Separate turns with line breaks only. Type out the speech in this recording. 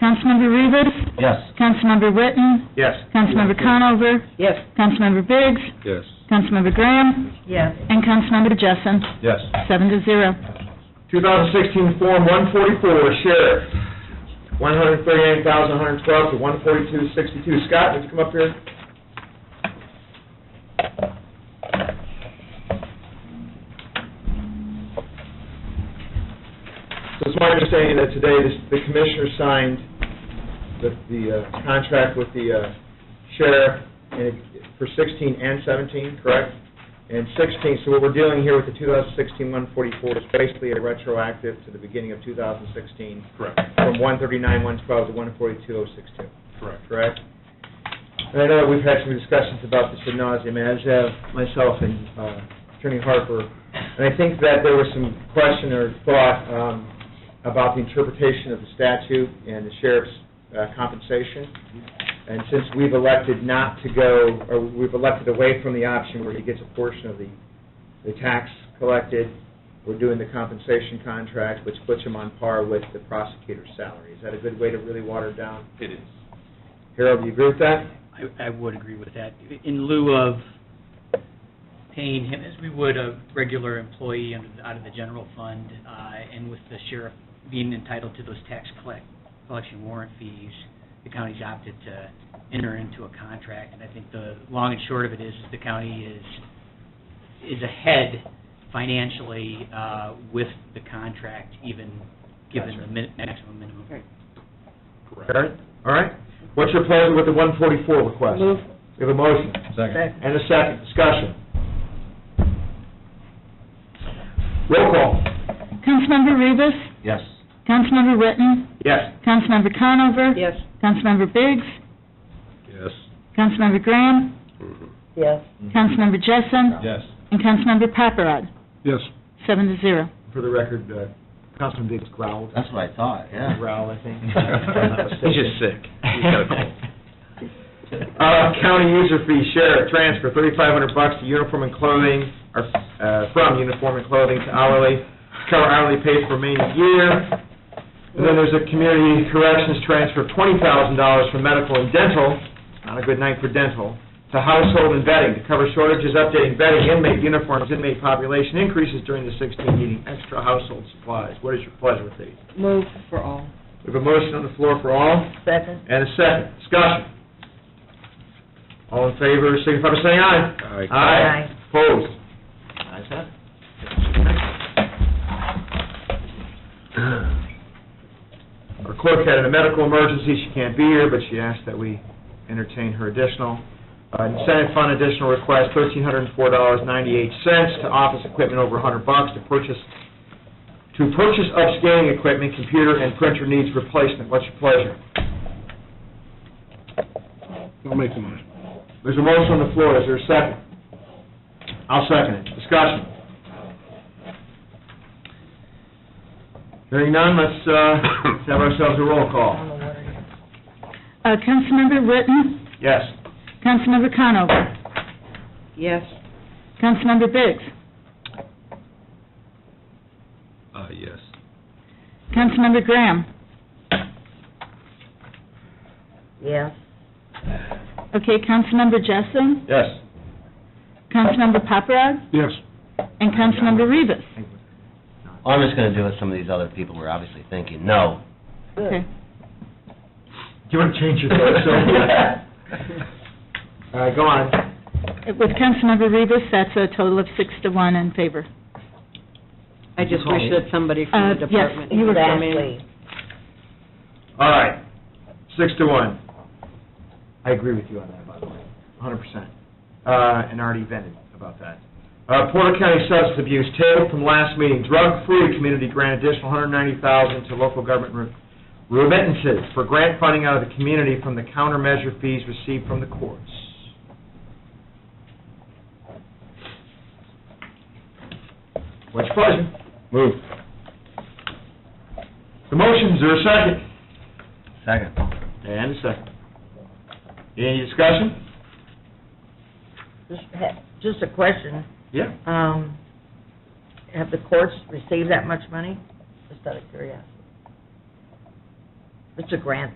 Councilmember Rivas,
Yes.
Councilmember Witten,
Yes.
Councilmember Conover,
Yes.
Councilmember Biggs,
Yes.
Councilmember Graham,
Yes.
and Councilmember Jessen,
Yes.
seven to zero.
2016 Form 144, Sheriff, 138,112 to 142,62. Scott, would you come up here? So it's my understanding that today this- the commissioner signed the- the uh, contract with the uh, sheriff and it- for 16 and 17, correct? and 16, so what we're dealing here with the 2016-144 is basically a retroactive to the beginning of 2016,
Correct,
from 139-112 to 142-062,
correct.
correct? And I know that we've had some discussions about this ad nauseam, as have myself and uh, Attorney Harper, and I think that there was some question or thought um, about the interpretation of the statute and the sheriff's uh, compensation. And since we've elected not to go, or we've elected away from the option where he gets a portion of the, the tax collected, we're doing the compensation contract, which puts him on par with the prosecutor's salary. Is that a good way to really water it down?
It is.
Harold, do you agree with that?
I, I would agree with that. In lieu of paying him as we would a regular employee under, the- out of the general fund, uh, and with the sheriff being entitled to those tax collect, collection warrant fees, the county's opted to enter into a contract, and I think the long and short of it is, is the county is, is ahead financially, uh, with the contract, even given the min- maximum minimum.
Karen? All right. What's your pleasure with the 144 request?
Move.
We have a motion.
Second.
And a second, discussion. Roll call.
Councilmember Rivas,
Yes.
Councilmember Witten,
Yes.
Councilmember Conover,
Yes.
Councilmember Biggs,
Yes.
Councilmember Graham,
Yes.
Mm-hmm.
Councilmember Jessen,
Yes.
and Councilmember Paparad,
Yes.
seven to zero.
For the record, uh, Councilman Biggs growled.
That's what I thought, yeah.
Growl, I think.
He's just sick. He's got a cold.
Uh, county user fee, sheriff, transfer, thirty-five hundred bucks to uniform and clothing, or, uh, from uniform and clothing to hourly, cover hourly pay for remaining year. And then there's a community corrections transfer, twenty thousand dollars from medical and dental, not a good night for dental, to household and vetting, to cover shortages, updating vetting, inmate uniforms, inmate population increases during the sixteen meeting, extra household supplies. What is your pleasure with these?
Move for all.
We have a motion on the floor for all.
Second.
And a second, discussion. All in favor, signify by saying aye.
Aye.
Aye.
Opposed? Ayes have it. Our clerk had a medical emergency, she can't be here, but she asked that we entertain her additional. Uh, Senate fund additional request, thirteen hundred and four dollars, ninety-eight cents to office equipment over a hundred bucks to purchase, to purchase upscaling equipment, computer and printer needs replacement. What's your pleasure?
I'll make the motion.
There's a motion on the floor, is there a second? I'll second it, discussion. Hearing none, let's, uh, let's have ourselves a roll call.
Uh, Councilmember Witten,
Yes.
Councilmember Conover,
Yes.
Councilmember Biggs,
Uh, yes.
Councilmember Graham.
Yes.
Okay, Councilmember Jessen,
Yes.
Councilmember Paparad,
Yes.
and Councilmember Rivas.
All I'm just gonna do is some of these other people were obviously thinking, no.
Okay.
Do you want to change your vote, Sylvia? All right, go on.
With Councilmember Rivas, that's a total of six to one in favor.
I just wish that somebody from
Uh,
the
yes,
department.
you were
Exactly.
coming.
All right, six to one. I agree with you on that, by the way, hundred percent. Uh, and already vented about that. Uh, Porter County Substance Abuse, tabled from last meeting, drug-free community grant additional hundred ninety thousand to local government re- remittances for grant funding out of the community from the countermeasure fees received from the courts. What's your pleasure? Move. The motion's there a second?
Second.
And a second. Any discussion?
Just ha- Just a question,
Yeah.
um, have the courts received that much money? Just out of curiosity. It's a grant,